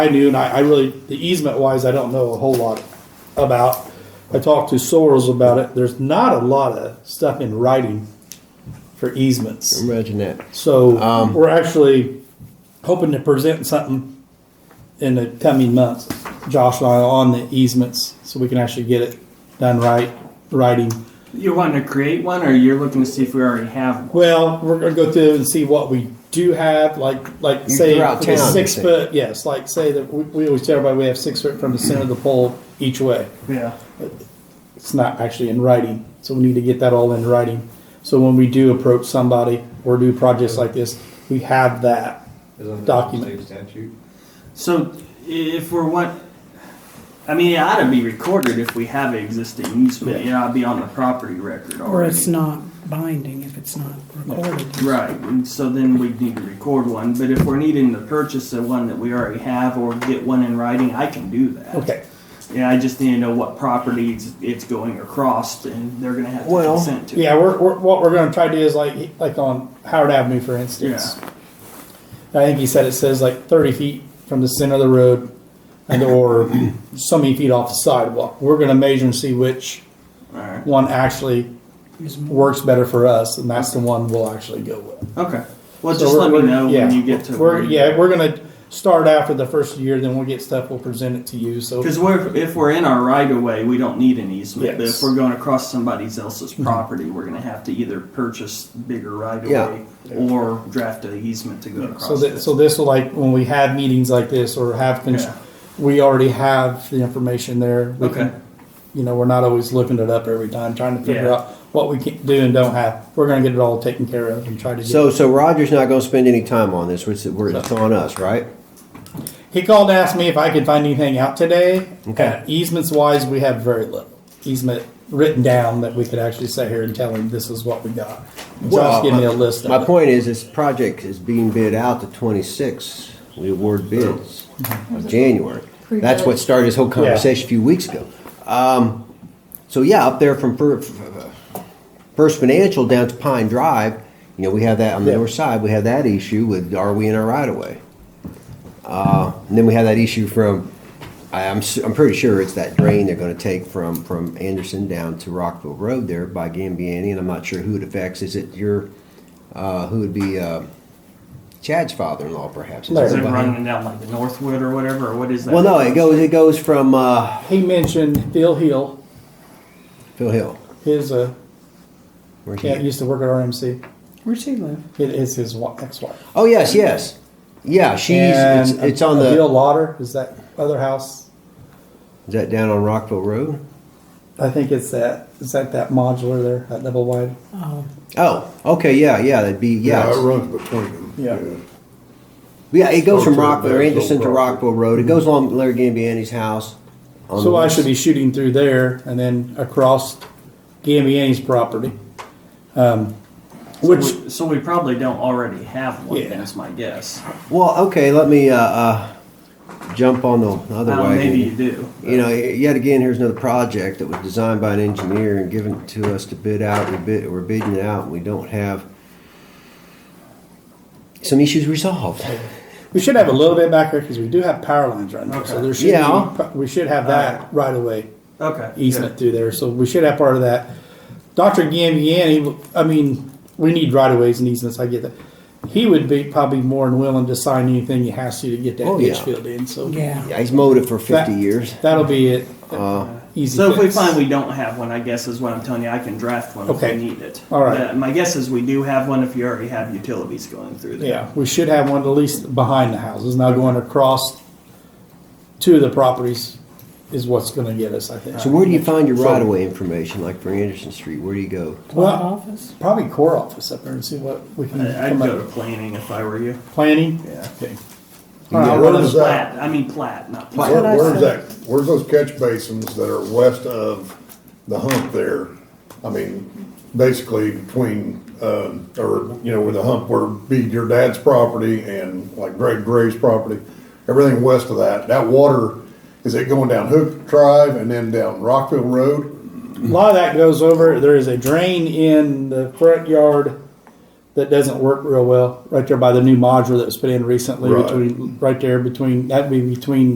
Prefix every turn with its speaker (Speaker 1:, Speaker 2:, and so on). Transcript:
Speaker 1: I knew, and I, I really, the easement wise, I don't know a whole lot about. I talked to Soros about it. There's not a lot of stuff in writing for easements.
Speaker 2: Imagine that.
Speaker 1: So we're actually hoping to present something in the coming months, Josh and I, on the easements, so we can actually get it done right, writing.
Speaker 3: You're wanting to create one, or you're looking to see if we already have one?
Speaker 1: Well, we're gonna go through and see what we do have, like, like say,
Speaker 2: throughout
Speaker 1: okay,
Speaker 2: town, you
Speaker 1: six
Speaker 2: say.
Speaker 1: foot, yes, like say that, we, we always tell everybody we have six foot from the center of the pole each way.
Speaker 3: Yeah.
Speaker 1: It's not actually in writing, so we need to get that all in writing. So when we do approach somebody or do projects like this, we have that.
Speaker 4: Isn't that
Speaker 1: Document.
Speaker 4: state statute?
Speaker 3: So if we're what, I mean, it ought to be recorded if we have an existing easement. It ought to be on the property record already.
Speaker 5: Or it's not binding if it's not recorded.
Speaker 3: Right, and so then we'd need to record one, but if we're needing to purchase the one that we already have or get one in writing, I can do that.
Speaker 1: Okay.
Speaker 3: Yeah, I just need to know what properties it's going across and they're gonna have to
Speaker 2: Well,
Speaker 3: consent to. it.
Speaker 1: Yeah, we're, we're, what we're gonna try to do is like, like on Howard Avenue, for instance. I think he said it says like thirty feet from the center of the road and or so many feet off the sidewalk. We're gonna measure and see which
Speaker 3: Alright,
Speaker 1: one actually
Speaker 5: Is-
Speaker 1: works better for us, and that's the one we'll actually go with.
Speaker 3: okay. Well,
Speaker 1: So
Speaker 3: just
Speaker 1: we're-
Speaker 3: let me
Speaker 1: we're-
Speaker 3: know
Speaker 1: yeah,
Speaker 3: when you get to.
Speaker 1: We're, yeah, we're gonna start after the first year, then we'll get stuff, we'll present it to you, so.
Speaker 3: Cause we're, if we're in our right of way, we don't need an easement, but
Speaker 1: Yes.
Speaker 3: if we're going across somebody else's
Speaker 2: Mm-hmm.
Speaker 3: property, we're gonna have to either purchase bigger right of
Speaker 2: Yeah.
Speaker 3: way or draft an easement to go
Speaker 1: So
Speaker 3: across.
Speaker 1: that,
Speaker 3: it.
Speaker 1: so this will like, when we have meetings like this or have, cons-
Speaker 3: Yeah.
Speaker 1: we already have the information there. We can-
Speaker 3: Okay.
Speaker 1: You know, we're not always looking it up every time, trying to figure
Speaker 3: Yeah.
Speaker 1: out what we can do and don't have. We're gonna get it all taken care of and try to
Speaker 2: So,
Speaker 1: get.
Speaker 2: so Roger's not going to spend any time on this. It's, we're- it's on us, right?
Speaker 1: He called to ask me if I could find anything out today.
Speaker 2: Okay.
Speaker 1: Uh, Easements wise, we have very little easement written down that we could actually sit here and tell him this is what we got. Josh give me a list
Speaker 2: uh, My
Speaker 1: of it.
Speaker 2: point is, this project is being bid out to 26. We award bids of January. That's what started this whole conversation a few weeks ago. Um, so yeah, up there from Fir- First Financial down to Pine Drive, you know, we have that on the
Speaker 1: Yeah.
Speaker 2: north side. We have that issue with are we in our right of way? Uh, and then we have that issue from. I, I'm su- I'm pretty sure it's that drain they're going to take from from Anderson down to Rockville Road there by Gambiani, and I'm not sure who it affects. Is it your uh, who would be uh, Chad's father-in-law, perhaps? Is it
Speaker 3: Is it
Speaker 1: Larry.
Speaker 2: behind-
Speaker 3: running down like the Northwood or whatever, or what is that?
Speaker 2: Well, no, it goes it goes from uh,
Speaker 1: He mentioned Phil Hill,
Speaker 2: Phil Hill.
Speaker 1: his, uh,
Speaker 2: Where's he
Speaker 1: yeah,
Speaker 2: at?
Speaker 1: used to work at RMC.
Speaker 5: Where's he live?
Speaker 1: It is his wa- ex-wife.
Speaker 2: Oh yes, yes, yeah. She's it's,
Speaker 1: And
Speaker 2: it's on
Speaker 1: Bill
Speaker 2: the
Speaker 1: Lauder is that other house.
Speaker 2: is that down on Rockville Road?
Speaker 1: I think it's that. Is that that modular there, that double wide?
Speaker 5: Oh,
Speaker 2: Oh, okay, yeah, yeah. That'd be yeah.
Speaker 6: Yeah, it
Speaker 2: it's-
Speaker 6: runs between them.
Speaker 1: Yeah.
Speaker 2: Yeah, it goes from
Speaker 6: Rockville,
Speaker 2: Rockville,
Speaker 6: there's no
Speaker 2: Anderson to
Speaker 6: problem.
Speaker 2: Rockville Road. It goes along Larry Gambiani's house. on
Speaker 1: So
Speaker 2: the
Speaker 1: I
Speaker 2: west.
Speaker 1: should be shooting through there and then across Gambiani's property, um, which
Speaker 3: So we- So we probably don't already have one,
Speaker 1: Yeah.
Speaker 3: that's my guess.
Speaker 2: Well, okay, let me uh, uh, jump on the other
Speaker 3: Well,
Speaker 2: wagon.
Speaker 3: Uh, maybe you do.
Speaker 2: You know, yet again, here's another project that was designed by an engineer and given to us to bid out. We bid, we're bidding it out, and we don't have some issues resolved.
Speaker 1: we should have a little bit back here because we do have power lines right now. So
Speaker 3: Okay.
Speaker 1: there should
Speaker 2: Yeah.
Speaker 1: be, we should have that right away
Speaker 3: Okay.
Speaker 1: easement through there. So we should have part of that. Doctor Gambiani, I mean, we need right of ways and easements. I get that. He would be probably more than willing to sign anything he has to to get that
Speaker 2: Oh,
Speaker 1: ditch
Speaker 2: yeah.
Speaker 1: filled in. So
Speaker 5: yeah.
Speaker 2: Yeah, he's mowed it for 50
Speaker 1: That-
Speaker 2: years.
Speaker 1: That'll be it.
Speaker 2: Uh,
Speaker 1: Easy.
Speaker 3: So if we
Speaker 1: fix.
Speaker 3: find we don't have one, I guess is what I'm telling you, I can draft one if
Speaker 1: Okay.
Speaker 3: we need it.
Speaker 1: All right.
Speaker 3: Uh, My guess is we do have one if you already have utilities going through there.
Speaker 1: yeah, we should have one at least behind the houses. Now going across two of the properties is what's going to get us, I think.
Speaker 2: so, where do you find your right of way information, like for Anderson Street? Where do you go?
Speaker 5: What
Speaker 1: well,
Speaker 5: office?
Speaker 1: probably core office up there and see what we can
Speaker 3: I- I'd
Speaker 1: come
Speaker 3: go to
Speaker 1: up
Speaker 3: planning if I were you.
Speaker 1: planning.
Speaker 3: Yeah.
Speaker 1: Okay.
Speaker 6: Yeah,
Speaker 1: All right,
Speaker 6: where
Speaker 1: well,
Speaker 6: does that-
Speaker 3: Plat, I mean plat, not plat.
Speaker 6: Where,
Speaker 5: what I
Speaker 6: where's
Speaker 5: said.
Speaker 6: that, where's those catch basins that are west of the hump there? I mean, basically between, um, or, you know, where the hump where be your dad's property and like Greg Gray's property, everything west of that, that water, is it going down Hook Drive and then down Rockville Road?
Speaker 1: a lot of that goes over. There is a drain in the front yard that doesn't work real well, right there by the new modular that was put in recently
Speaker 6: Right.
Speaker 1: between, right there between, that'd be between